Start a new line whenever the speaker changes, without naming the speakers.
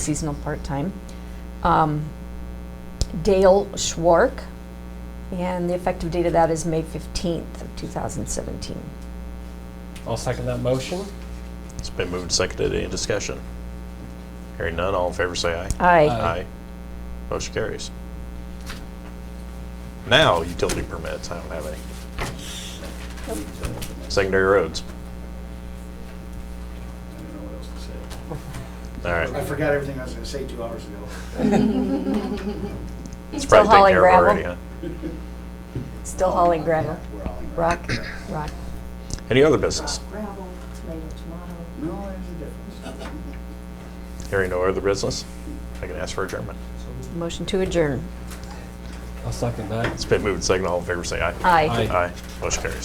seasonal part-time. Um, Dale Schwark, and the effective date of that is May 15th of 2017.
I'll second that motion.
It's been moved and seconded. Any discussion? Hearing none, all in favor say aye.
Aye.
Aye.
Motion carries. Now, utility permits. I don't have any. Secondary roads.
I don't know what else to say.
All
I
right.
forgot everything I was gonna say two hours ago.
It's
Still
probably taken
hauling
care of already,
gravel.
huh?
Still hauling gravel.
Yeah, We're hauling gravel.
Rock, rock.
Any other business?
gravel later tomorrow.
No, there's a difference.
Hearing no other business, I can ask for adjournment.
Motion to adjourn.
I'll second that.
It's been moved and seconded. All in favor say aye.
Aye.
Aye.
Aye. Motion carries.